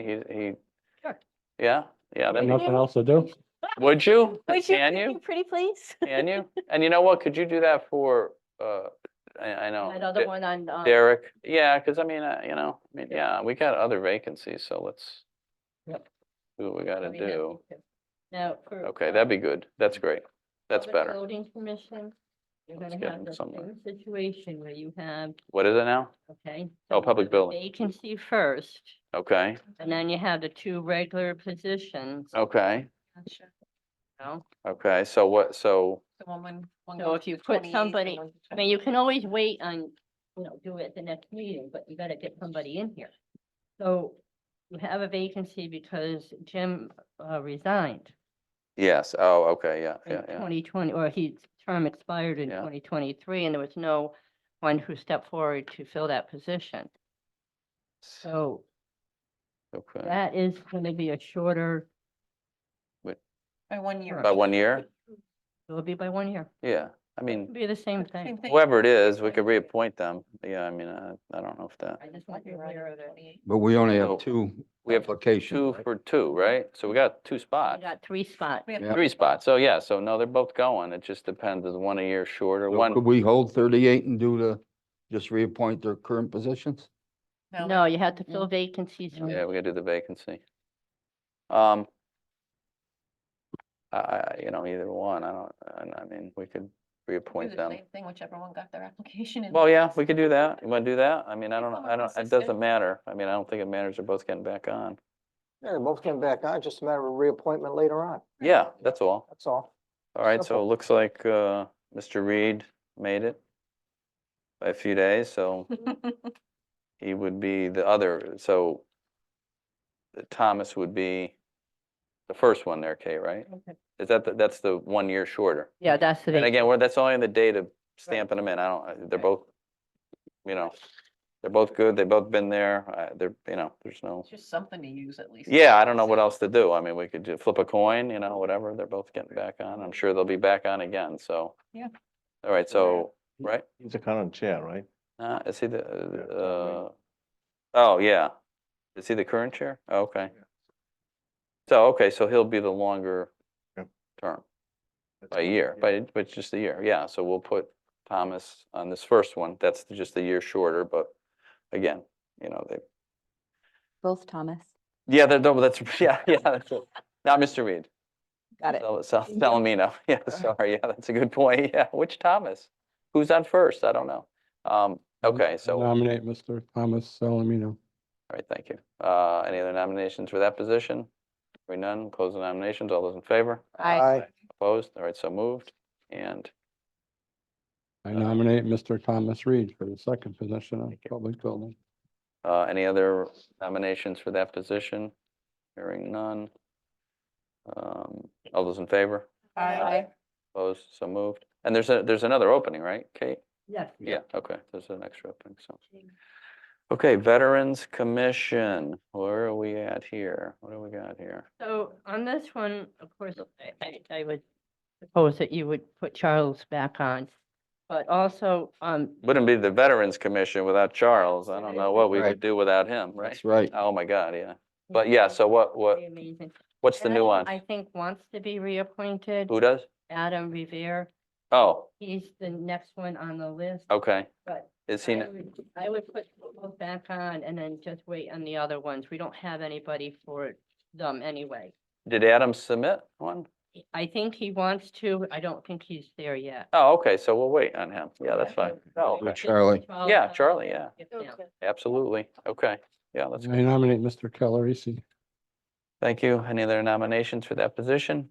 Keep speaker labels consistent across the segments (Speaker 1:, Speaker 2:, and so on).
Speaker 1: he, he.
Speaker 2: Sure.
Speaker 1: Yeah, yeah, that'd be-
Speaker 3: Nothing else to do?
Speaker 1: would you?
Speaker 2: Would you,
Speaker 1: Can
Speaker 2: could
Speaker 1: you?
Speaker 2: you pretty please?
Speaker 1: Can you? And you know what? Could you do that for, uh, I, I know.
Speaker 2: Another
Speaker 1: De-
Speaker 2: one on, uh,
Speaker 1: Derek, yeah, because I mean, uh, you know, I mean, yeah, we got other vacancies, so let's
Speaker 3: Yep.
Speaker 1: do what we gotta
Speaker 2: we have
Speaker 1: do.
Speaker 2: to- Now. for,
Speaker 1: Okay,
Speaker 2: uh,
Speaker 1: that'd be good. That's great. That's
Speaker 2: Public
Speaker 1: better.
Speaker 2: Building commission, you're
Speaker 1: Let's
Speaker 2: gonna
Speaker 1: get
Speaker 2: have
Speaker 1: him
Speaker 2: the
Speaker 1: somewhere.
Speaker 2: same situation where you have,
Speaker 1: What is it now?
Speaker 2: okay.
Speaker 1: Oh,
Speaker 2: so you
Speaker 1: public
Speaker 2: have a
Speaker 1: building.
Speaker 2: Vacancy first,
Speaker 1: Okay,
Speaker 2: and then you have the two regular positions, you
Speaker 1: okay,
Speaker 2: know?
Speaker 1: okay. So what, so,
Speaker 2: So if you put somebody, I mean, you can always wait on, you know, do it at the next meeting, but you gotta get somebody in here. So you have a vacancy because Jim uh, resigned.
Speaker 1: yes, oh, okay, yeah,
Speaker 2: in
Speaker 1: yeah, yeah.
Speaker 2: twenty twenty, or his term expired in
Speaker 1: Yeah.
Speaker 2: twenty twenty-three, and there was no one who stepped forward to fill that position. So
Speaker 1: Okay,
Speaker 2: that is going to be a shorter,
Speaker 4: By Oh, one year.
Speaker 1: by one year?
Speaker 2: it'll be by one year.
Speaker 1: Yeah, I
Speaker 2: It'll
Speaker 1: mean,
Speaker 2: be the same
Speaker 4: Same
Speaker 2: thing.
Speaker 4: thing.
Speaker 1: whoever it is, we could reappoint them. Yeah, I mean, I, I don't know if that,
Speaker 2: I just want you to aware of it.
Speaker 5: But we only
Speaker 1: So,
Speaker 5: have two
Speaker 1: we have two
Speaker 5: applications. right?
Speaker 1: for two, right? So we got two
Speaker 2: I
Speaker 1: spots.
Speaker 2: got three spots.
Speaker 4: We
Speaker 5: Yeah.
Speaker 4: have
Speaker 1: Three spots, so yeah, so no, they're both going, it just depends, is one a year short or
Speaker 5: So
Speaker 1: one,
Speaker 5: Could we hold thirty-eight and do the, just reappoint their current positions?
Speaker 2: No, you have to fill vacancies. from-
Speaker 1: yeah, we gotta do the vacancy. Um. I- I, you know, either one, I don't, I- I mean, we could
Speaker 4: do
Speaker 1: reappoint
Speaker 4: the
Speaker 1: them.
Speaker 4: same Thing, whichever one got their application. in
Speaker 1: Well, yeah,
Speaker 4: first.
Speaker 1: we could do that, you wanna do that? I mean, I
Speaker 4: Keep
Speaker 1: don't, know.
Speaker 4: them
Speaker 1: I don't, it
Speaker 4: consistent.
Speaker 1: doesn't matter, I mean, I don't think it matters, they're both getting back on.
Speaker 6: Yeah, they both came back on, just a matter of reappointment later on,
Speaker 1: Yeah, that's all,
Speaker 6: that's all.
Speaker 1: all right, so it
Speaker 6: Simple.
Speaker 1: looks like, uh, Mr. Reed made it. By a few days, so he would be the other, so uh, Thomas would be the first one there, Kate, right?
Speaker 2: Okay.
Speaker 1: Is that, the- that's the one year shorter?
Speaker 2: Yeah, that's the
Speaker 1: And
Speaker 2: vacancy.
Speaker 1: again, we're, that's only on the date of stamping them in. I don't, uh, they're
Speaker 4: Right.
Speaker 1: both, you know, they're both good. They've both been there. Uh, they're, you know, there's no,
Speaker 4: It's Just something to use at least.
Speaker 1: yeah, I don't know what else to do. I mean, we could ju- flip a coin, you know, whatever. They're both getting back on. I'm sure they'll be back on again, so.
Speaker 4: Yeah.
Speaker 1: All right, so, right?
Speaker 7: He's the current chair, right?
Speaker 1: Uh, is he the,
Speaker 7: Yeah,
Speaker 1: uh, oh, yeah. Is he the current chair? Oh, Okay.
Speaker 7: Yeah.
Speaker 1: So, okay, so he'll be the longer
Speaker 7: Yep.
Speaker 1: term,
Speaker 7: That's
Speaker 1: by a
Speaker 7: right,
Speaker 1: year, but, but just a year, yeah. So we'll put Thomas on this first one. That's just a year shorter, but again, you know, they,
Speaker 8: Both Thomas.
Speaker 1: yeah, they're double, that's, yeah, yeah, that's it. Not Mr. Reed.
Speaker 8: Got it.
Speaker 1: Sal- Sal- Salamino, yeah, sorry, yeah, that's a good point, yeah. Which Thomas? Who's on first? I don't know. Um, okay, so.
Speaker 3: Nominate Mr. Thomas Salamino.
Speaker 1: All right, thank you. Uh, Any other nominations for that position? Hearing none, close the nominations. All those in favor?
Speaker 8: I
Speaker 1: Opposed? All right, so moved. And
Speaker 3: I
Speaker 1: Uh,
Speaker 3: nominate Mr. Thomas Reed for the second position on
Speaker 1: Thank you.
Speaker 3: public building.
Speaker 1: uh, any other nominations for that position? Hearing none. Um, All those in favor?
Speaker 4: Aye.
Speaker 1: Opposed? So moved. And there's a, there's another opening, right, Kate?
Speaker 2: Yes.
Speaker 1: Yeah, okay, there's an extra opening, so. Okay, Veterans Commission, where are we at here? What do we got here?
Speaker 2: So on this one, of course, I- I, I would suppose that you would put Charles back on. But also, um,
Speaker 1: Wouldn't be the Veterans Commission without Charles. I don't know what we
Speaker 5: Right.
Speaker 1: would do without him, right?
Speaker 5: That's right.
Speaker 1: Oh, my God, yeah. But yeah, so what, what,
Speaker 2: pretty amazing.
Speaker 1: what's the
Speaker 2: Adam,
Speaker 1: nuance?
Speaker 2: I think wants to be reappointed.
Speaker 1: Who does?
Speaker 2: Adam Revere,
Speaker 1: Oh,
Speaker 2: he's the next one on the list.
Speaker 1: okay.
Speaker 2: But
Speaker 1: Is he,
Speaker 2: I
Speaker 1: n-
Speaker 2: would, I would put both back on and then just wait on the other ones. We don't have anybody for them anyway.
Speaker 1: did Adam submit one?
Speaker 2: I think he wants to. I don't think he's there yet.
Speaker 1: Oh, okay, so we'll wait on him. Yeah, that's fine. Oh,
Speaker 5: For
Speaker 1: okay.
Speaker 5: Charlie,
Speaker 2: Charles
Speaker 1: Yeah,
Speaker 2: Howell,
Speaker 1: Charlie, yeah,
Speaker 2: if now.
Speaker 1: absolutely. Okay, yeah, that's,
Speaker 3: I nominate Mr. Calarisi.
Speaker 1: thank you. Any other nominations for that position?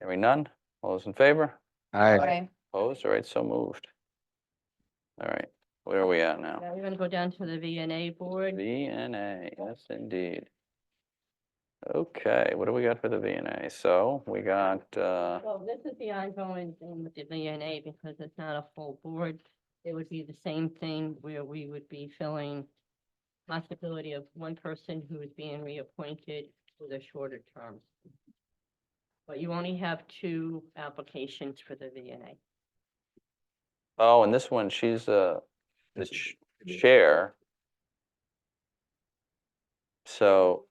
Speaker 1: Hearing none? All those in favor?
Speaker 5: aye.
Speaker 4: Aye.
Speaker 1: Opposed? All right, so moved. All right, where are we at now?
Speaker 2: Now we're gonna go down to the VNA board.
Speaker 1: VNA, yes indeed. Okay, what do we got for the VNA? So we got, uh,
Speaker 2: Well, this is the ongoing thing with the VNA because it's not a full board. It would be the same thing where we would be filling possibility of one person who is being reappointed with a shorter term. But you only have two applications for the VNA.
Speaker 1: oh, and this one, she's uh, the ch- chair. So,